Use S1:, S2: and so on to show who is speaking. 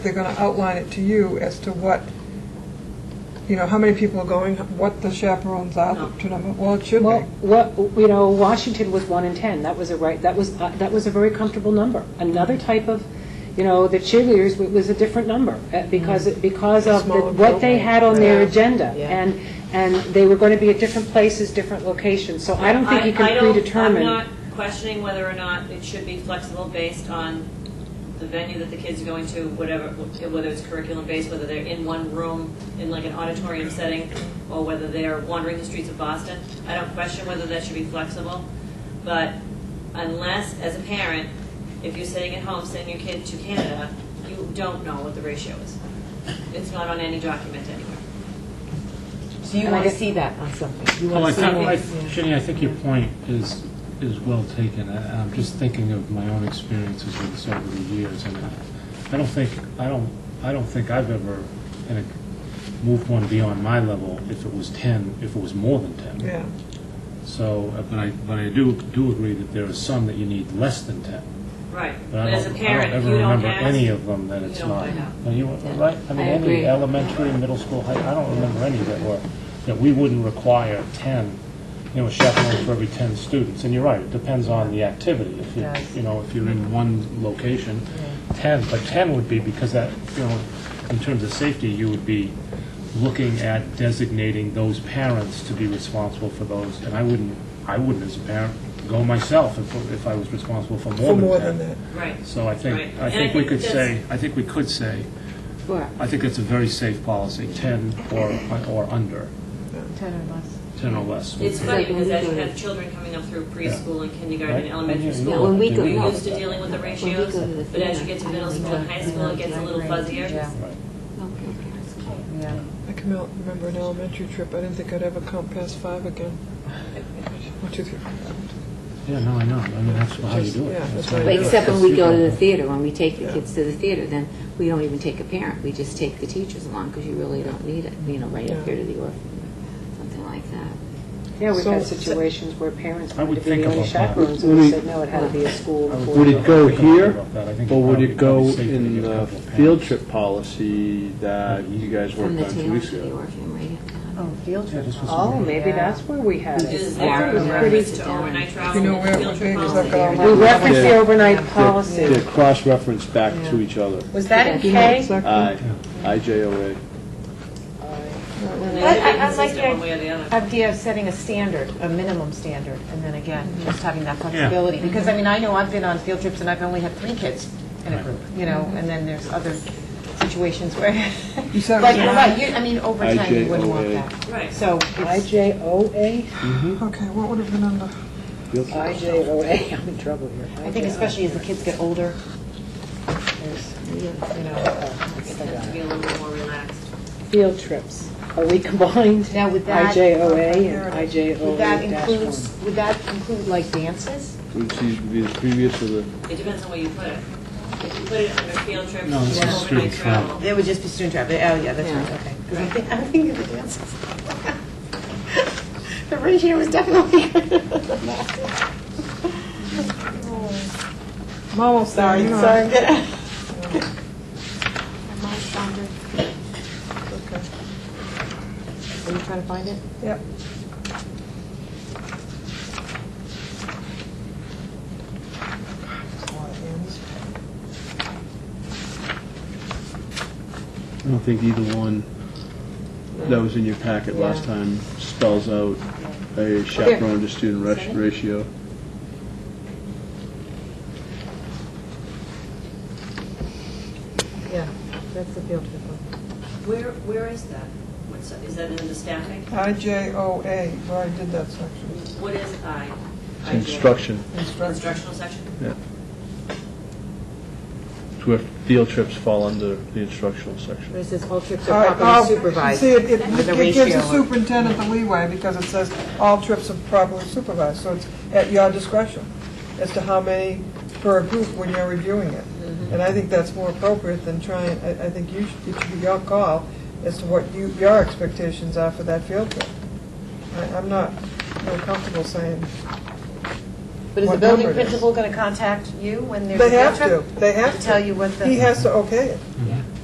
S1: They're going to outline it to you as to what, you know, how many people are going, what the chaperones
S2: No.
S1: are, to number, well, it should
S3: Well,
S1: be.
S3: what, you know, Washington was one in 10. That was a right, that was, uh, that was a very comfortable number. Another type of, you know, the cheerleaders w- was a different number uh,
S4: Mm-hmm.
S3: because, because of the-
S1: Smaller
S3: what they had on their
S1: program.
S3: agenda.
S2: Yeah.
S3: And, and they were going to be at different places, different locations. So I don't think you
S2: I
S3: can
S2: don't-
S3: predetermine.
S2: I'm not questioning whether or not it should be flexible based on the venue that the kids are going to, whatever, whether it's curriculum-based, whether they're in one room, in like an auditorium setting, or whether they're wandering the streets of Boston. I don't question whether that should be flexible, but unless, as a parent, if you're sitting at home sending your kid to Canada, you don't know what the ratio is. It's not on any document anywhere.
S5: So you
S3: And I
S5: want to
S3: get-
S5: see that on something? You
S4: Well, I
S5: want to see
S4: think, I-
S5: it?
S4: Ginny, I think your point is, is well taken. I- I'm just thinking of my own experiences with this over the years, and I- I don't think, I don't, I don't think I've ever kind of moved one beyond my level if it was 10, if it was more than 10.
S1: Yeah.
S4: So, uh, but I, but I do, do agree that there are some that you need less than 10.
S2: Right.
S4: But
S2: But
S4: I
S2: as a
S4: don't-
S2: parent, if you don't
S4: I don't ever remember any
S2: ask,
S4: of them that
S2: you
S4: it's
S2: don't
S4: not.
S2: find out.
S4: No, you were right. I mean,
S5: I
S4: any
S5: agree.
S4: elementary, middle school, high, I don't remember any that were, that we wouldn't require 10, you know, chaperones for every 10 students. And you're right, it depends on the activity. If you,
S5: Yes.
S4: you know, if you're
S2: Mm-hmm.
S4: in one location, 10, but 10 would be, because that, you know, in terms of safety, you would be looking at designating those parents to be responsible for those. And I wouldn't, I wouldn't as a parent go myself if, if I was responsible for
S1: For
S4: more
S1: more
S4: than 10.
S1: than that.
S2: right.
S4: So I
S2: Right.
S4: think, I
S2: And I
S4: think we
S2: think
S4: could
S2: that's-
S4: say, I think we could say,
S3: What?
S4: I think it's a very safe policy, 10 or, or under,
S5: Ten or less.
S4: 10 or less.
S2: It's funny
S5: like when
S2: because
S5: we
S2: as
S5: go
S2: you
S5: to-
S2: have children coming up through preschool and kindergarten
S4: Right?
S2: and elementary
S4: Yeah,
S2: school,
S5: Yeah, when we go-
S2: we're
S5: no.
S2: used to dealing with the
S5: we
S2: ratios,
S5: go to the
S2: but as you
S5: theater,
S2: get to
S5: I
S2: middle
S5: don't
S2: school and
S5: know.
S2: high school, it gets a little
S5: Yeah.
S2: fuzzier.
S4: Right.
S5: Yeah.
S1: I can mel- remember an elementary trip, I didn't think I'd ever count past five again. One, two, three.
S4: Yeah, no, I know, I mean, that's how you do it.
S1: Yeah, that's
S4: how
S1: how you
S4: you
S5: But
S4: do it.
S5: except when we go to the
S4: That's-
S5: theater, when we take the
S1: Yeah.
S5: kids to the theater, then we don't even take a parent, we just take the teachers along, because you really don't need it, you know, right
S1: Yeah.
S5: up here to the orphan, something like that.
S3: Yeah, we've had
S1: So-
S3: situations where parents
S4: I would
S3: wanted to be
S4: think
S3: the only
S4: about that.
S3: chaperones, and
S6: Would
S3: we
S6: it-
S3: said, no, it had to be a school.
S4: I would
S3: before
S6: Would
S3: you
S6: it go
S4: I think
S6: here,
S4: about that. I think
S6: or would
S4: probably-
S6: it go
S4: probably safe to
S6: in
S4: get a
S6: the
S4: couple of
S6: field
S4: parents.
S6: trip policy that you guys
S5: From
S6: worked
S5: the
S6: on two
S5: tail
S6: weeks
S5: to the
S6: ago?
S5: orphan, right?
S7: Oh, field
S4: Yeah,
S7: trip.
S4: this was-
S3: Oh, maybe that's where we had it.
S2: Is
S5: Yeah.
S2: there a
S3: That was
S5: Yeah.
S3: pretty-
S2: reference to overnight travel?
S1: You know
S2: and
S1: where
S2: field
S1: it
S2: trip
S1: is,
S2: policy?
S1: I've got all
S3: We
S1: my.
S3: referenced the
S6: Yeah.
S3: overnight
S6: They're
S3: policy.
S6: cross-referenced back to each other.
S7: Was that in K?
S6: I, IJOA.
S2: And
S7: But
S2: they
S7: I- I
S2: can
S7: like
S2: insist
S7: your-
S2: one way or the other.
S7: idea of setting a standard, a minimum standard, and then again, just having that flexibility.
S4: Yeah.
S7: Because, I mean, I know I've been on field trips and I've only had three kids in a group, you know, and then there's other situations where, like,
S1: You
S7: you're
S1: said-
S7: right, you- I mean, over time, you wouldn't want
S6: IJOA.
S7: that.
S2: Right.
S7: So, it's-
S3: IJOA?
S1: Okay, what would have been under?
S6: Field trip.
S3: IJOA, I'm in trouble here.
S7: I think especially as the kids get older, there's, you know,
S2: It has to be a little bit more relaxed.
S3: Field trips, are we combined?
S7: Now, would that-
S3: IJOA and
S7: would that
S3: IJOA dash one.
S7: includes, would that include like dances?
S6: Which is be the previous to the,
S2: It depends on where you put it. If you put it under field trip,
S4: No, this is
S2: overnight
S4: student travel.
S2: travel.
S7: It would just be student travel, oh, yeah, that's
S5: Yeah.
S7: right, okay. Because I think, I'm thinking of the dances. The ratio was definitely.
S1: I'm almost there, you know.
S7: good.
S1: Okay.
S7: Are you trying to find it?
S1: Yep.
S6: I don't think either one that was in your packet last time spells out a chaperone to student rat- ratio.
S7: Yeah, that's the field trip one.
S2: Where, where is that? What's, is that in the staffing?
S1: IJOA, where I did that section.
S2: What is I?
S6: It's
S2: IJ?
S6: Instruction,
S1: Instruction.
S2: Instructional section?
S6: yeah. It's where field trips fall under the instructional section.
S7: This is all trips
S1: All
S7: are
S1: right, all-
S7: properly supervised.
S1: See, it, it
S7: with a
S1: it gives the
S7: ratio of-
S1: superintendent the leeway because it says all trips are properly supervised, so it's at your discretion as to how many per group when you're reviewing it.
S7: Mm-hmm.
S1: And I think that's more appropriate than trying, I, I think you should, it should be your call as to what you, your expectations are for that field trip. I, I'm not real comfortable saying,
S7: But is the
S1: what
S7: building
S1: number it is.
S7: principal going to contact you when there's a
S1: they
S7: field
S1: have
S7: trip?
S1: to, they have to.
S7: tell you what the-
S1: He has to okay it.
S2: Yeah.